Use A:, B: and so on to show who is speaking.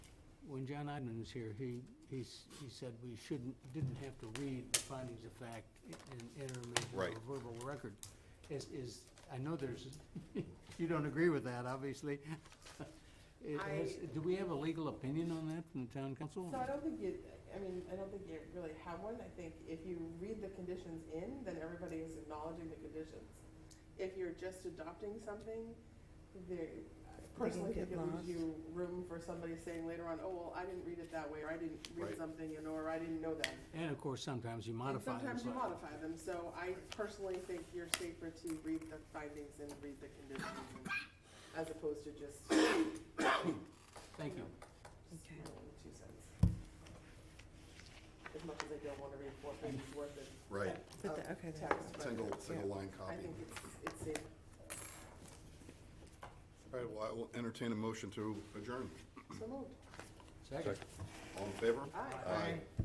A: when John Idman was here, he, he, s- he said we shouldn't, didn't have to read the findings of fact in interim
B: Right.
A: or verbal record. Is, is, I know there's, you don't agree with that, obviously. It
C: I-
A: has- Do we have a legal opinion on that from the town council?
C: So I don't think you, I mean, I don't think you really have one. I think if you read the conditions in, then everybody is acknowledging the conditions. If you're just adopting something, there, I personally
D: get
C: think it leaves
D: lost.
C: you room for somebody saying later on, oh, well, I didn't read it that way, or I didn't
B: Right.
C: read something, you know, or I didn't know that.
A: And of course, sometimes you
C: And
A: modify them.
C: sometimes you
A: slightly.
C: modify them, so I personally think you're safer to read the findings and read the conditions and- as opposed to just, just
A: Thank you.
D: Okay.
C: my own two cents. As much as I don't wanna read four pages worth of
B: Right,
D: But
C: of
D: the- okay, there.
C: Text, but
B: single, single line
C: I
B: copy.
C: think it's, it's safe.
B: All right, well, I will entertain a motion to adjourn.
C: So moved.
A: Second.
B: All in favor?
C: Aye.
B: Aye.